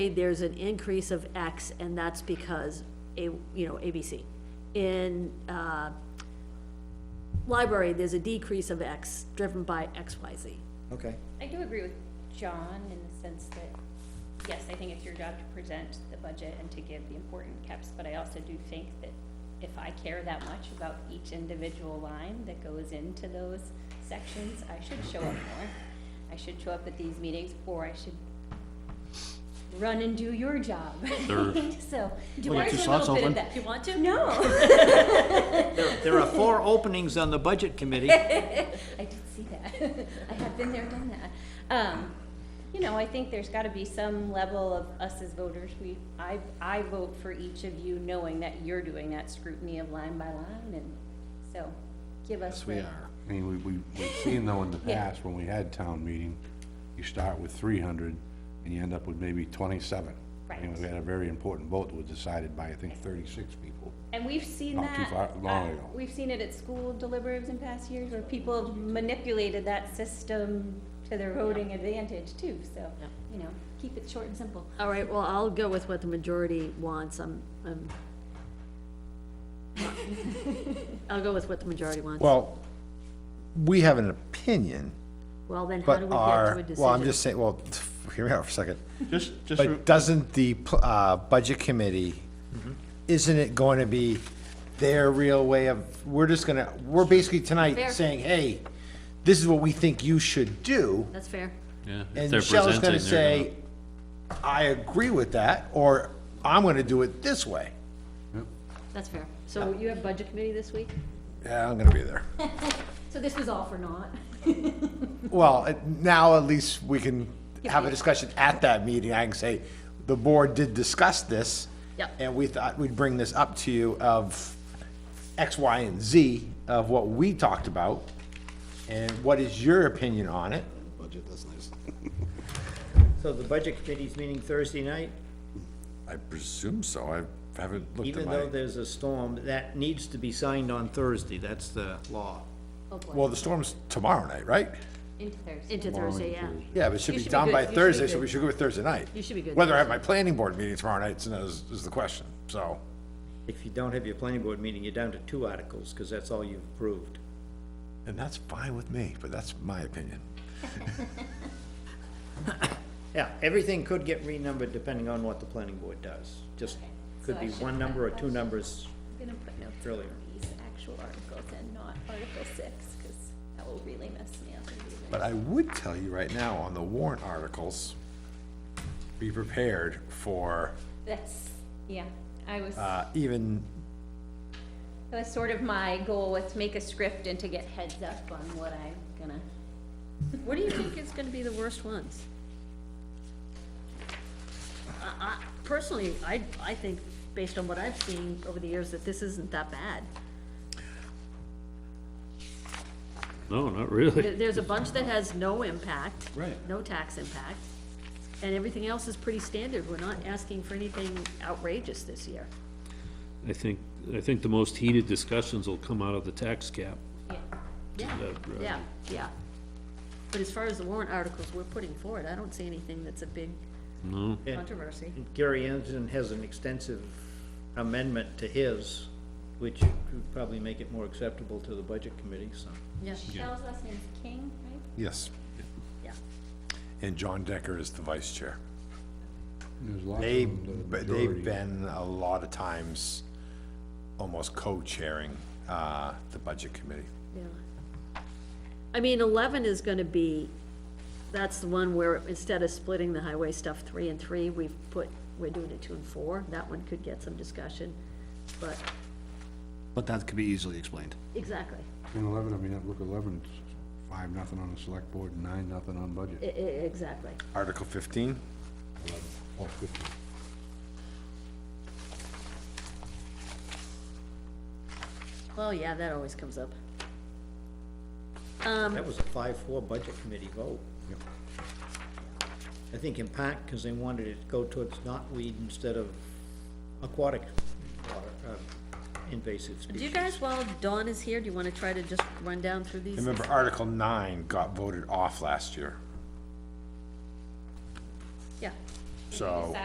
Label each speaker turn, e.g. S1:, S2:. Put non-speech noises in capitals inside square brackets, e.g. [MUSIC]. S1: there's an increase of X, and that's because, A, you know, ABC. In, uh, library, there's a decrease of X, driven by XYZ.
S2: Okay,
S3: I do agree with John in the sense that, yes, I think it's your job to present the budget and to give the important caps, but I also do think that if I care that much about each individual line that goes into those sections, I should show up more. I should show up at these meetings, or I should run and do your job.
S4: Sure.
S3: [LAUGHS] So,
S1: Do
S4: you want
S3: there's
S4: your
S3: a little
S4: slots
S3: bit of
S4: open?
S3: that.
S1: you want to?
S3: No,
S2: there, there are four [LAUGHS] openings on the budget committee.
S3: I did see that. [LAUGHS] I have been there, done that. Um, you know, I think there's gotta be some level of us as voters, we, I, I vote for each of you knowing that you're doing that scrutiny of line by line and so give us
S4: Yes, we
S3: the,
S4: are.
S5: I mean, we, we, we've seen though in the
S3: Yeah.
S5: past, when we had town meeting, you start with three hundred and you end up with maybe twenty-seven. I mean,
S3: Right.
S5: we had a very important vote that was decided by, I think, thirty-six people.
S3: and we've seen
S5: Not too
S3: that.
S5: far- long
S3: uh,
S5: ago.
S3: We've seen it at school deliberatives in past years where people have manipulated that system to their voting advantage too, so,
S1: Yeah.
S3: you know, keep it short and simple.
S1: All right, well, I'll go with what the majority wants, I'm, I'm. [LAUGHS] I'll go with what the majority wants.
S6: [LAUGHS] Well, we have an opinion,
S1: Well, then how
S6: but
S1: do we get to a
S6: our,
S1: decision?
S6: well, I'm just saying, well, [LAUGHS] hear me out for a second.
S4: Just, just, re-
S6: But doesn't the, pl- uh, budget committee,
S2: Mm-hmm.
S6: isn't it going to be their real way of, we're just gonna, we're basically tonight
S1: Fair.
S6: saying, hey, this is what we think you should do.
S1: That's fair.
S4: yeah. if
S6: And
S4: they're
S6: Michelle's
S4: presenting,
S6: gonna
S4: they're
S6: say, I agree with that, or I'm gonna do it this way.
S1: That's fair. So you have budget committee this week?
S6: Yeah, I'm gonna be there.
S1: So this was all for naught?
S6: Well, it- now at least we can have a discussion at that meeting. I can say, the board did discuss this.
S1: Yep.
S6: And we thought we'd bring this up to you of X, Y, and Z of what we talked about. And what is your opinion on it?
S5: Budget doesn't exist.
S2: So the budget committee's meeting Thursday night,
S5: I presume so, I haven't looked at
S2: even though
S5: my,
S2: there's a storm, that needs to be signed on Thursday, that's the law.
S1: Oh, boy.
S6: Well, the storm's tomorrow night, right?
S3: Into Thursday.
S1: Into Thursday, yeah.
S6: Yeah, but it should
S1: You
S6: be
S1: should be
S6: done
S1: good.
S6: by
S1: You should be
S6: Thursday, so
S1: good.
S6: we should go with Thursday night.
S1: You should be good.
S6: Whether I have my planning board meeting tomorrow night is, is the question, so.
S2: If you don't have your planning board meeting, you're down to two articles, because that's all you've approved.
S6: And that's fine with me, but that's my opinion.
S2: Yeah, everything could get renumbered depending on what the planning board does. Just, could be one number or two numbers
S3: I'm gonna put notes on
S2: earlier.
S3: these actual articles and not Article six, cause that will really mess me up. in the evening.
S5: but I would tell you right now, on the warrant articles, be prepared for,
S3: That's, yeah, I was, that
S6: Uh, even
S3: was sort of my goal was to make a script and to get heads up on what I'm gonna,
S1: What do you think is gonna be the worst ones? I, I, personally, I, I think, based on what I've seen over the years, that this isn't that bad.
S4: No, not
S1: There-
S4: really.
S1: There's a bunch that has no impact.
S4: Right.
S1: No tax impact, and everything else is pretty standard. We're not asking for anything outrageous this year.
S4: I think, I think the most heated discussions will come out of the tax cap.
S3: yeah,
S1: Yeah,
S4: that, right.
S1: yeah, yeah. But as far as the warrant articles we're putting forward, I don't see anything that's a big
S4: No,
S1: controversy.
S2: Gary Anderson has an extensive amendment to his, which would probably make it more acceptable to the budget committee, so.
S1: Yeah,
S3: Michelle's last name's King, right?
S5: yes,
S1: yeah.
S6: And John Decker is the vice chair.
S5: There's lots
S6: They,
S5: of them uh, that are
S6: but they've
S5: dirty.
S6: been a lot of times almost co-chairing, uh, the budget committee.
S1: Yeah. I mean, eleven is gonna be, that's the one where instead of splitting the highway stuff three and three, we've put, we're doing it two and four. That one could get some discussion, but,
S7: But that could be easily explained.
S1: exactly.
S5: In eleven, I mean, look, eleven, it's five, nothing on the select board, nine, nothing on
S1: I-
S5: budget.
S1: I- e, exactly.
S6: Article fifteen?
S5: Oh, fifty.
S1: Well, yeah, that always comes up.
S2: That was a five-four budget committee vote. I think in part because they wanted it to go towards knotweed instead of aquatic water, uh, invasive
S1: Do you
S2: species.
S1: guys, while Dawn is here, do you wanna try to just run down through these?
S6: Remember, Article nine got voted off last year,
S1: Yeah.
S6: so.